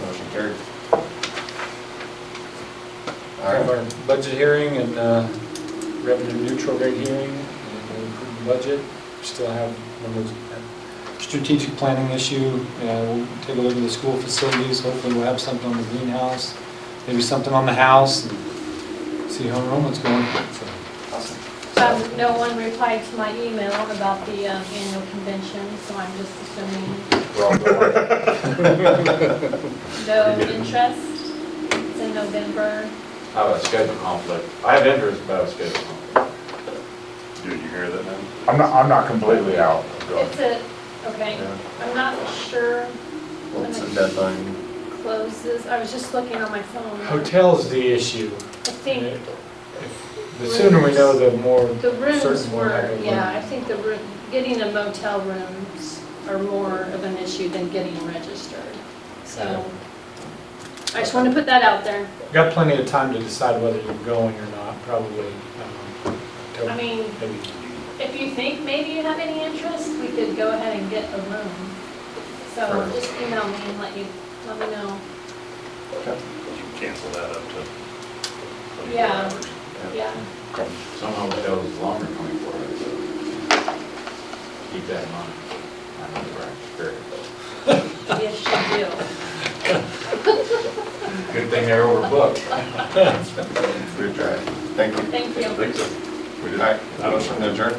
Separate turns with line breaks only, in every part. Motion carried. All
Have
right,
our budget hearing and uh, revenue neutral rate hearing and we'll approve the budget. We Still have one of those uh, strategic planning issue. Uh, We'll take a look at the school facilities. Hopefully we'll have something on the greenhouse, maybe something on the house. and See how enrollment's going. So,
awesome.
Um, no one replied to my email about the um, annual convention, so I'm just assuming
We're all going.
no interest. It's in November.
I have a schedule conflict. I have interest, but I have a schedule conflict.
Did you hear that now?
I'm not, I'm not completely out.
It's a, okay,
Yeah.
I'm not sure
What's the deadline?
closes. I was just looking on my phone.
Hotel's the issue. Uh,
I think
The sooner we know, the more
the rooms
certain we're not
were,
gonna
yeah,
win.
I think the room, getting a motel rooms are more of an issue than getting registered. So I just want to put that out there.
Got plenty of time to decide whether you're going or not, probably. um, October,
I mean,
maybe.
If you think maybe you have any interest, we could go ahead and get a room. So
Right.
just email me and let you, let me know.
You cancel that up to.
Yeah. Yeah,
Somehow it goes longer than 24 hours. Keep that in mind. I know you're right. Sure.
yes, you do.
Good thing they're overbooked.
Good try. Thank you.
Thank you.
All right, motion to adjourn.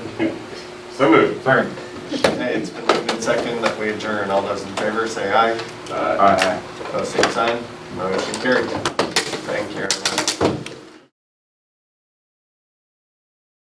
So moved.
Sorry.
Hey, it's been moved and seconded that we adjourn. All those in favor, say aye.
Aye.
Opposed, same sign. Motion carried. Thank you, everyone.